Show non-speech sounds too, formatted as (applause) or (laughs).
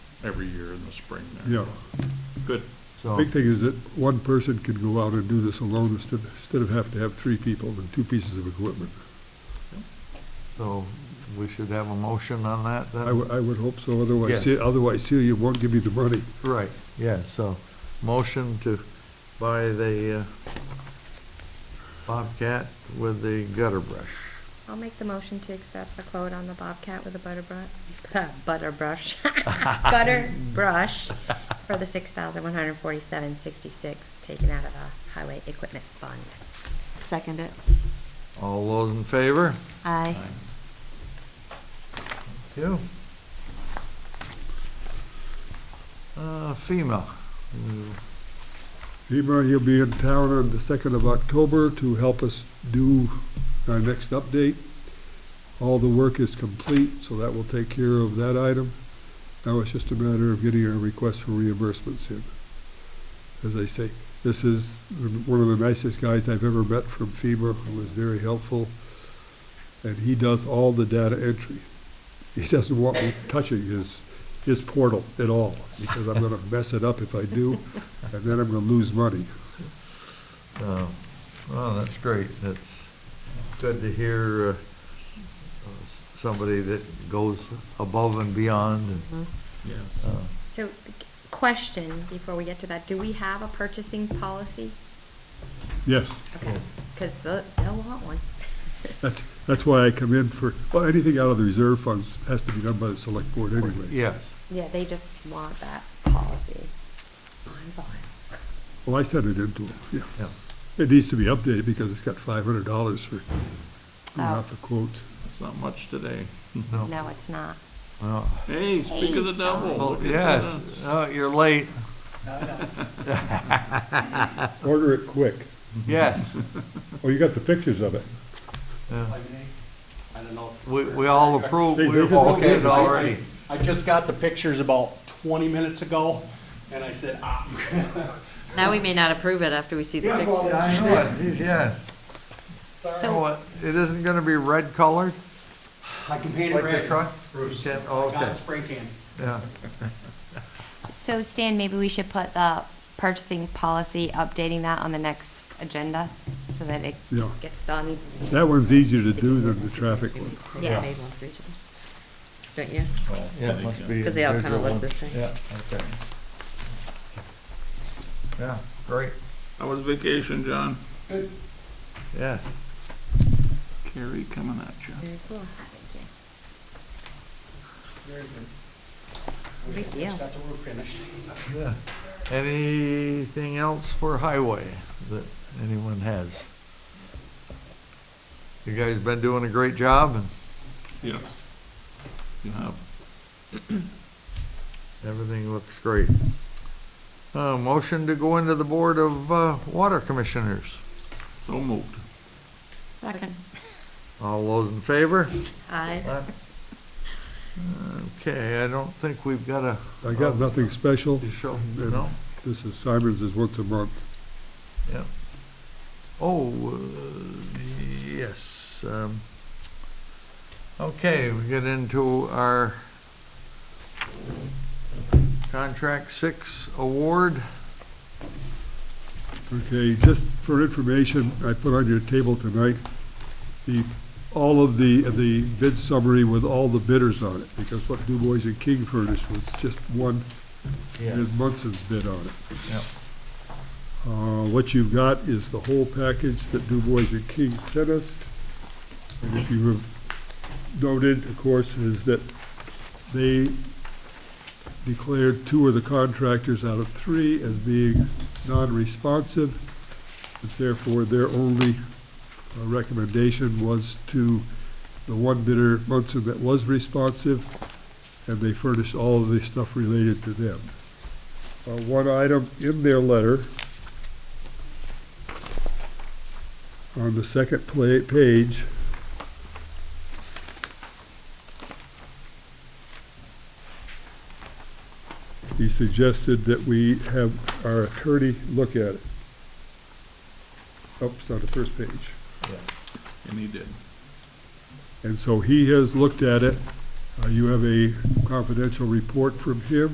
every year in the spring there. Yeah, Good. So, big thing is that one person could go out and do this alone instead, instead of having to have three people and two pieces of equipment. so we should have a motion on that then? I would, I would hope so, otherwise, Uh, Yes. Ce- otherwise Celia won't give me the money. Right, yeah, so motion to buy the uh, Bobcat with the gutter brush. I'll make the motion to accept the quote on the Bobcat with a butter brush, (laughs) butter brush, butter brush for the six thousand one hundred forty-seven sixty-six taken out of the highway equipment fund. Second it. All those in favor? Aye. Yeah. Uh, FEMA, Femur, he'll be in town on the second of October to help us do our next update. All the work is complete, so that will take care of that item. Now it's just a matter of getting our request for reimbursements in. As I say, this is one of the nicest guys I've ever met from FEMA, who was very helpful. And he does all the data entry. He doesn't want me touching his, his portal at all, because I'm gonna mess it up if I do, and then I'm gonna lose money. uh, well, that's great, that's good to hear uh, uh, s- somebody that goes above and beyond and Yes. uh, So, question before we get to that, do we have a purchasing policy? Yes, Okay, because they'll, they'll want one. (laughs) that's, that's why I come in for, well, anything out of the reserve funds has to be done by the select board anyway. Yes, Yeah, they just want that policy on file. Well, I sent it into them, yeah. yeah. It needs to be updated because it's got five hundred dollars for, not for quotes. It's not much today. No, it's not. Well, Hey, speak of the devil. well, look at yes, that. oh, you're (laughs) late, Order it quick. yes. Oh, you got the pictures of it. yeah. I don't know. if- We, we all approve, They- we they just don't okayed need it it. already. I just got the pictures about twenty minutes ago, and I said, ah. (laughs) Now we may not approve it after we see the picture. I know it, yes. So, What, it isn't gonna be red colored? I can paint Like it the red. truck? Bruce, You I can- oh, got okay. it spray can. Yeah, so Stan, maybe we should put the purchasing policy, updating that on the next agenda so that it Yeah. just gets done. That one's easier to do than the traffic one. Yeah, they want three times. Don't you? yeah, it must be. Because they all kinda individual look the ones. same. Yeah, okay. Yeah, great, How was vacation, John? yes. Carrie coming at you. Very cool. Very good. Big Just deal. Got the roof finished. (laughs) Yeah. Anything else for highway that anyone has? You guys been doing a great job and Yes. You have. everything looks great. Uh, motion to go into the Board of, uh, Water Commissioners. So moved. Second. All those in favor? Aye. Okay, I don't think we've got a, I got nothing special. you show, And no? This is, Simon's is once a month. Yeah. Oh, uh, yes. um, Okay, we get into our Contract Six Award. Okay, just for information, I put on your table tonight, the, all of the, the bid summary with all the bidders on it, because what Du Bois and King furnished was just one, and Munson's bid on it. Yep. Uh, what you've got is the whole package that Du Bois and King sent us. And if you have noted, of course, is that they declared two of the contractors out of three as being non-responsive. It's therefore their only uh, recommendation was to the one bidder, Munson, that was responsive, and they furnished all of the stuff related to them. Uh, One item in their letter, on the second pla- page, he suggested that we have our attorney look at it. Oops, on the first page. And he did. And so he has looked at it. Uh, You have a confidential report from him.